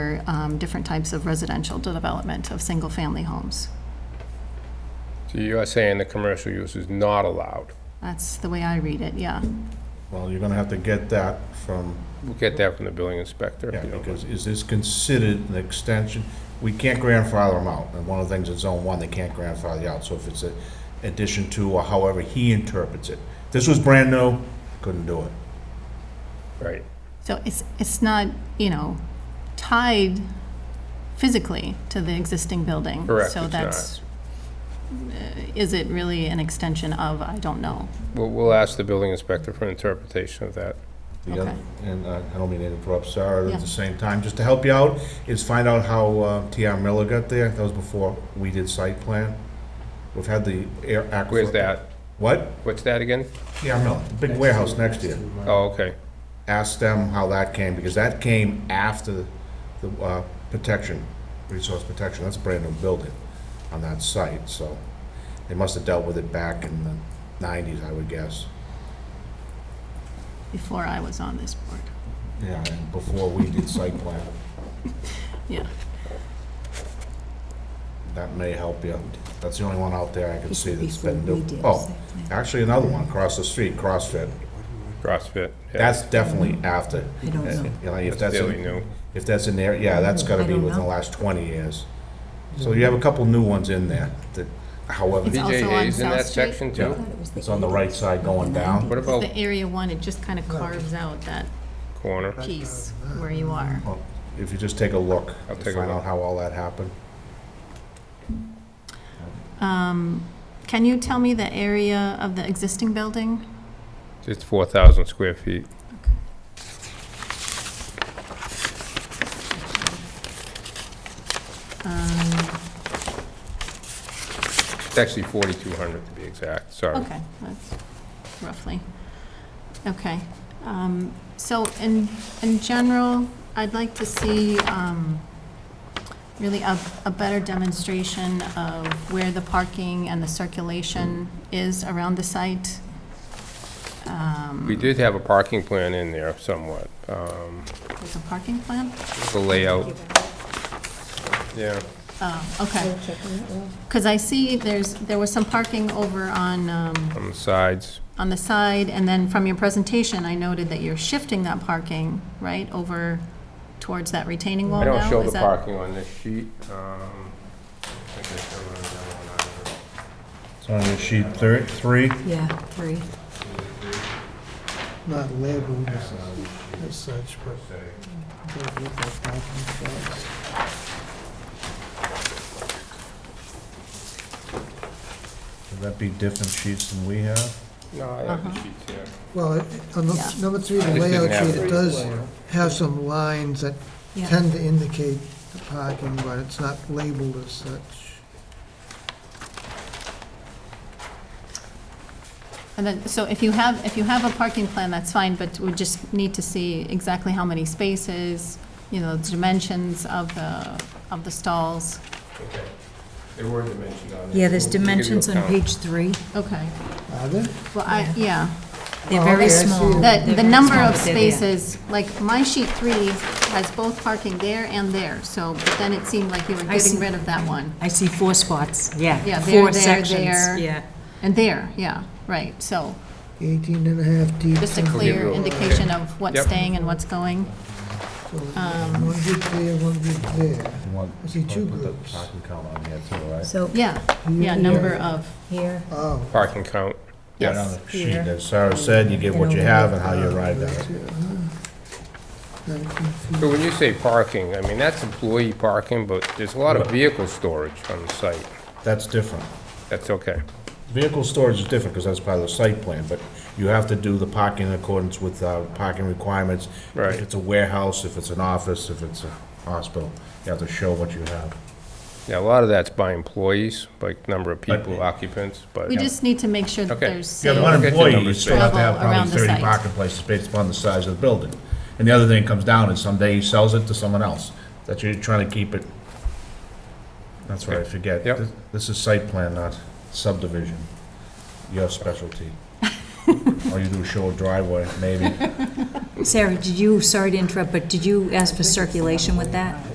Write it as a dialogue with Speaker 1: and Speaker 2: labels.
Speaker 1: for um, different types of residential development of single-family homes.
Speaker 2: So you are saying the commercial use is not allowed?
Speaker 1: That's the way I read it, yeah.
Speaker 3: Well, you're gonna have to get that from,
Speaker 2: We'll get that from the building inspector. if
Speaker 3: yeah,
Speaker 2: you don't mind.
Speaker 3: because is this considered an extension? We can't grandfather them out, and one of the things in zone one, they can't grandfather you out, so if it's an addition to, or however he interprets it. This was brand new, couldn't do it.
Speaker 2: Right.
Speaker 1: So it's, it's not, you know, tied physically to the existing building.
Speaker 2: Correct,
Speaker 1: So
Speaker 2: it's
Speaker 1: that's, uh, is it really an extension of, I don't know.
Speaker 2: We'll, we'll ask the building inspector for an interpretation of that.
Speaker 3: The other-
Speaker 1: Okay.
Speaker 3: And uh, I don't mean to interrupt Sarah
Speaker 1: Yeah.
Speaker 3: at the same time, just to help you out, is find out how uh, T.R. Miller got there. That was before we did site plan. We've had the air aquifer.
Speaker 2: Where's that?
Speaker 3: What?
Speaker 2: What's that again?
Speaker 3: T.R. Miller, big warehouse next to you.
Speaker 2: Oh, okay.
Speaker 3: ask them how that came, because that came after the uh, protection, resource protection, that's a brand-new building on that site, so they must have dealt with it back in the nineties, I would guess.
Speaker 1: Before I was on this board,
Speaker 3: Yeah, and before we did site plan,
Speaker 1: yeah.
Speaker 3: that may help you. That's the only one out there I can see that's been
Speaker 4: Before we
Speaker 3: new.
Speaker 4: did
Speaker 3: Oh,
Speaker 4: site plan.
Speaker 3: actually, another one across the street, CrossFit.
Speaker 2: CrossFit. yeah.
Speaker 3: That's definitely after.
Speaker 4: I don't know.
Speaker 3: You know,
Speaker 2: That's
Speaker 3: if that's,
Speaker 2: fairly
Speaker 3: in-
Speaker 2: new.
Speaker 3: if that's in there, yeah, that's gotta
Speaker 4: I
Speaker 3: be
Speaker 4: don't
Speaker 3: within the
Speaker 4: know.
Speaker 3: last twenty years. So you have a couple new ones in there that, however.
Speaker 1: It's also
Speaker 2: DJ
Speaker 1: on
Speaker 2: Hayes in
Speaker 1: South
Speaker 2: that
Speaker 1: Street?
Speaker 2: section
Speaker 4: I
Speaker 2: too?
Speaker 4: thought it was E.
Speaker 3: It's on the right side going down.
Speaker 2: What about
Speaker 1: The Area One, it just kind of carves out that
Speaker 2: corner?
Speaker 1: piece where you are.
Speaker 3: Well, If you just take a look,
Speaker 2: I'll
Speaker 3: to
Speaker 2: take a
Speaker 3: find out
Speaker 2: look.
Speaker 3: how all that happened.
Speaker 1: Um, Can you tell me the area of the existing building?
Speaker 2: It's 4,000 square feet.
Speaker 1: Um,
Speaker 2: It's actually 4,200 to be exact, sorry.
Speaker 1: Okay, that's roughly, okay. Um, So in, in general, I'd like to see um, really a, a better demonstration of where the parking and the circulation is around the site. Um,
Speaker 2: We did have a parking plan in there somewhat, um,
Speaker 1: There's a parking plan?
Speaker 2: the layout, yeah.
Speaker 1: Oh, okay, because I see there's, there was some parking over on, um,
Speaker 2: On the sides,
Speaker 1: on the side, and then from your presentation, I noted that you're shifting that parking, right, over towards that retaining wall
Speaker 2: I
Speaker 1: now?
Speaker 2: don't show
Speaker 1: Is
Speaker 2: the
Speaker 1: that-
Speaker 2: parking on this sheet. um, I guess I wrote it down on either.
Speaker 3: It's on your sheet thir- three.
Speaker 4: Yeah, three.
Speaker 5: not labeled as as such, but they look like parking spots.
Speaker 3: Would that be different sheets than we have?
Speaker 2: No, I have
Speaker 1: Uh-huh.
Speaker 2: the sheets here.
Speaker 5: Well, it- on the-
Speaker 1: Yeah.
Speaker 5: number three,
Speaker 2: I
Speaker 5: the
Speaker 2: just
Speaker 5: layout
Speaker 2: didn't have
Speaker 5: sheet,
Speaker 2: it.
Speaker 5: it does have some lines that
Speaker 4: Yeah.
Speaker 5: tend to indicate the parking, but it's not labeled as such.
Speaker 1: And then, so if you have, if you have a parking plan, that's fine, but we just need to see exactly how many spaces, you know, the dimensions of the, of the stalls.
Speaker 2: Okay. There were dimensions on there.
Speaker 4: Yeah, there's
Speaker 2: We'll give you a
Speaker 4: dimensions on
Speaker 2: count.
Speaker 4: page three.
Speaker 1: Okay,
Speaker 5: Are there?
Speaker 1: well, I, yeah,
Speaker 4: They're
Speaker 5: Oh,
Speaker 4: very
Speaker 5: okay, I see
Speaker 4: small.
Speaker 5: it.
Speaker 4: They're
Speaker 1: the, the
Speaker 4: very
Speaker 1: number
Speaker 4: small,
Speaker 1: of
Speaker 4: but they're there.
Speaker 1: spaces, like, my sheet three has both parking there and there, so, but then it seemed like you were
Speaker 4: I
Speaker 1: getting
Speaker 4: see.
Speaker 1: rid of that one.
Speaker 4: I see four spots, yeah.
Speaker 1: Yeah, there,
Speaker 4: Four
Speaker 1: there,
Speaker 4: sections,
Speaker 1: there.
Speaker 4: yeah.
Speaker 1: And there, yeah, right, so,
Speaker 5: 18 and a half deep.
Speaker 1: just a
Speaker 5: some-
Speaker 1: clear
Speaker 2: Okay.
Speaker 1: indication of what's
Speaker 2: Yep.
Speaker 1: staying and what's going.
Speaker 5: One
Speaker 1: Um,
Speaker 5: group there, one group there.
Speaker 3: You want-
Speaker 5: I see two
Speaker 3: put the
Speaker 5: groups.
Speaker 3: Parking count on there too, right?
Speaker 4: So
Speaker 1: Yeah, yeah, number of,
Speaker 4: here,
Speaker 5: Oh.
Speaker 2: Parking count.
Speaker 3: Right
Speaker 1: yes.
Speaker 3: on the sheet,
Speaker 4: Here.
Speaker 3: as Sarah said, you get what you have and how you arrived at
Speaker 5: that's
Speaker 3: it.
Speaker 5: it, huh? Nineteen feet.
Speaker 2: So when you say parking, I mean, that's employee parking, but there's a lot of vehicle storage on the site.
Speaker 3: That's different.
Speaker 2: That's okay.
Speaker 3: Vehicle storage is different because that's part of the site plan, but you have to do the parking in accordance with uh, parking requirements.
Speaker 2: Right.
Speaker 3: If it's a warehouse, if it's an office, if it's a hospital, you have to show what you have.
Speaker 2: Yeah, a lot of that's by employees, like number of people,
Speaker 3: But-
Speaker 2: occupants, but.
Speaker 1: We just need to make sure that
Speaker 2: Okay.
Speaker 1: there's
Speaker 3: If you have
Speaker 1: safe.
Speaker 3: one
Speaker 2: Get the
Speaker 3: employee, you
Speaker 2: numbers
Speaker 3: still have to have
Speaker 1: Level around
Speaker 3: probably
Speaker 1: the
Speaker 3: thirty
Speaker 1: site.
Speaker 3: parking places based upon the size of the building. And the other thing comes down is someday he sells it to someone else, that you're trying to keep it. That's what I forget.
Speaker 2: Yep.
Speaker 3: This- This is site plan, not subdivision, your specialty. All you do is show a driveway, maybe.
Speaker 4: Sarah, did you, sorry to interrupt, but did you ask for circulation with that?